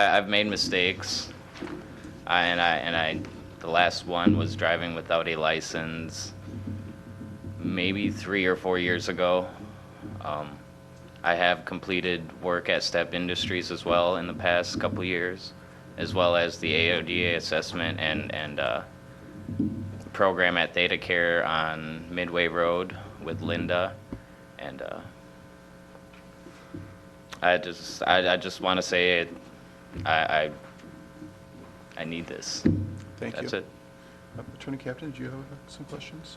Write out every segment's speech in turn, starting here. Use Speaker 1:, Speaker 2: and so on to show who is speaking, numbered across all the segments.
Speaker 1: I, I've made mistakes, I, and I and I, the last one was driving without a license, maybe three or four years ago. Um, I have completed work at Step Industries as well in the past couple years, as well as the AODA assessment and and uh, program at Theta Care on Midway Road with Linda, and. Uh, I just, I, I just want to say, it. I, I, I need this.
Speaker 2: Thank you.
Speaker 1: That's it.
Speaker 2: Uh, Attorney Captain, do you have uh, some questions?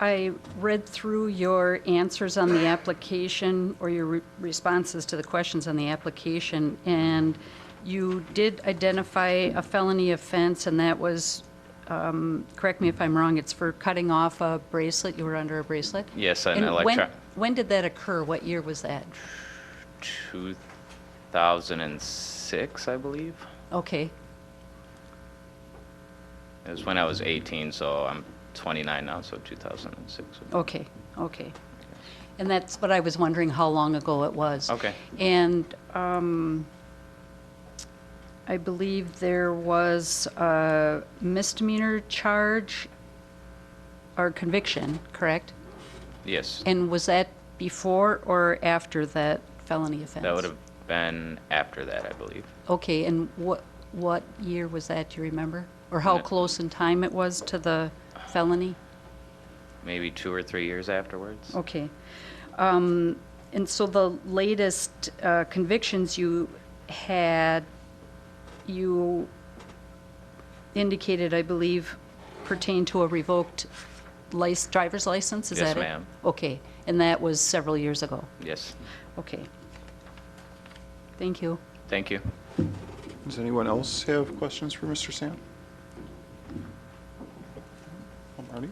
Speaker 3: I read through your answers on the application, or your re- responses to the questions on the application, and you did identify a felony offense, and that was, um, correct me if I'm wrong, it's for cutting off a bracelet, you were under a bracelet?
Speaker 1: Yes, an
Speaker 3: And when-
Speaker 1: electron,
Speaker 3: When did that occur? What year was that?
Speaker 1: 2006, I believe.
Speaker 3: Okay,
Speaker 1: It was when I was 18, so I'm 29 now, so 2006. would be-
Speaker 3: okay, okay. And that's what I was wondering, how long ago it was.
Speaker 1: Okay.
Speaker 3: And um, I believe there was a misdemeanor charge or conviction, correct?
Speaker 1: Yes,
Speaker 3: And was that before or after that felony offense?
Speaker 1: that would have been after that, I believe.
Speaker 3: Okay, and what, what year was that, do you remember? Or how
Speaker 1: Uh,
Speaker 3: close in time it was to the felony?
Speaker 1: Maybe two or three years afterwards.
Speaker 3: Okay. Um, And so the latest uh, convictions you had, you indicated, I believe, pertain to a revoked lic- driver's license? Is
Speaker 1: Yes,
Speaker 3: that it?
Speaker 1: ma'am.
Speaker 3: Okay, and that was several years ago?
Speaker 1: Yes,
Speaker 3: Okay. Thank you.
Speaker 1: thank you.
Speaker 2: Does anyone else have questions for Mr. Sam? Marty?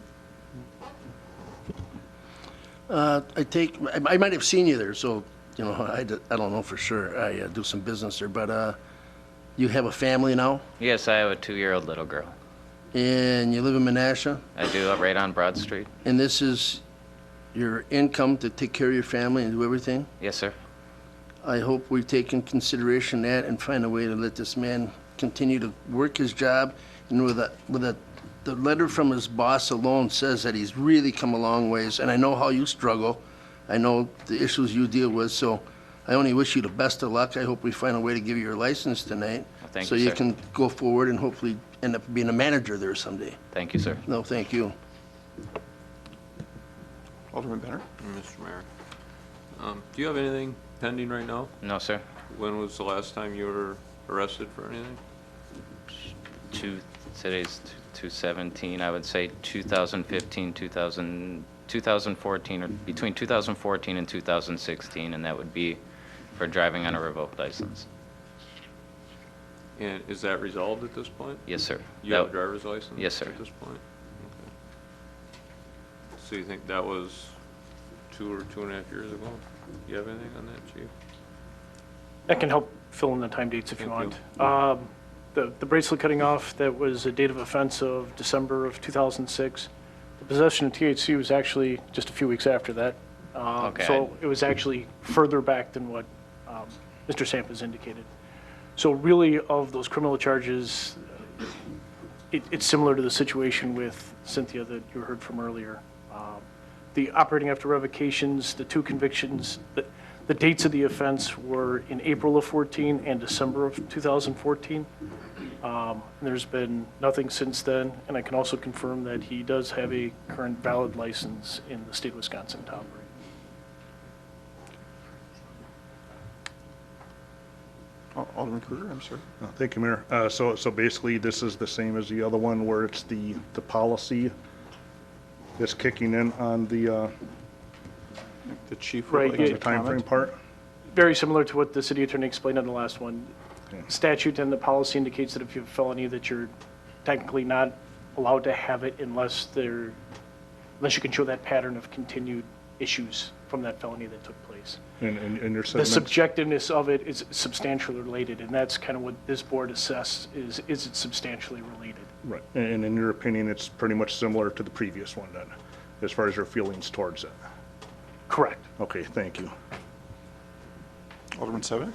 Speaker 4: Uh, I take, I I might have seen you there, so, you know, I, d- I don't know for sure. I uh, do some business there, but uh, you have a family now,
Speaker 1: Yes, I have a two-year-old little girl.
Speaker 4: and you live in Menasha,
Speaker 1: I do, uh, right on Broad Street.
Speaker 4: and this is your income to take care of your family and do everything?
Speaker 1: Yes, sir.
Speaker 4: I hope we take in consideration that and find a way to let this man continue to work his job. And with a, with a, the letter from his boss alone says that he's really come a long ways. And I know how you struggle. I know the issues you deal with, so I only wish you the best of luck. I hope we find a way to give you your license tonight.
Speaker 1: Well, thank
Speaker 4: So
Speaker 1: you,
Speaker 4: you
Speaker 1: sir.
Speaker 4: can go forward and hopefully end up being a manager there someday.
Speaker 1: Thank you, sir.
Speaker 4: No, thank you.
Speaker 2: Alderman Benner?
Speaker 5: Mr. Mayor, um, do you have anything pending right now?
Speaker 1: No, sir.
Speaker 5: When was the last time you were arrested for anything?
Speaker 1: two, today's t- 217, I would say 2015, 2000, 2014, or between 2014 and 2016, and that would be for driving on a revoked license.
Speaker 5: And is that resolved at this point?
Speaker 1: Yes, sir.
Speaker 5: You have a
Speaker 1: That-
Speaker 5: driver's license?
Speaker 1: Yes, sir.
Speaker 5: At this point? Okay. So you think that was two or two and a half years ago? Do you have anything on that, chief?
Speaker 6: I can help fill in the time dates if you
Speaker 5: Thank
Speaker 6: want. Um, The the bracelet cutting off, that was a date of offense of December of 2006. The possession of THC was actually just a few weeks after that. Um,
Speaker 1: Okay.
Speaker 6: So it was actually further back than what um, Mr. Samples indicated. So really, of those criminal charges, it- it's similar to the situation with Cynthia that you heard from earlier. Um, The operating after revocations, the two convictions, the the dates of the offense were in April of 14 and December of 2014. Um, and There's been nothing since then, and I can also confirm that he does have a current valid license in the state of Wisconsin to operate.
Speaker 2: Al- Alderman Kruger, I'm sorry.
Speaker 7: Uh, Thank you, Mayor. Uh, So, so basically, this is the same as the other one where it's the, the policy that's kicking in on the, uh,
Speaker 2: The chief would
Speaker 6: Right,
Speaker 2: like
Speaker 6: yeah.
Speaker 2: to
Speaker 7: the timeframe
Speaker 2: comment.
Speaker 7: part?
Speaker 6: very similar to what the city attorney explained on the last one. Statute and the policy indicates that if you have a felony, that you're technically not allowed to have it unless there, unless you can show that pattern of continued issues from that felony that took place.
Speaker 7: And, and and you're
Speaker 6: The
Speaker 7: saying that's,
Speaker 6: subjectiveness of it is substantially related, and that's kind of what this board assesses, is, is it substantially related?
Speaker 7: right, and and in your opinion, it's pretty much similar to the previous one then, as far as your feelings towards it?
Speaker 6: Correct.
Speaker 7: Okay, thank you.
Speaker 2: Alderman Sevenick?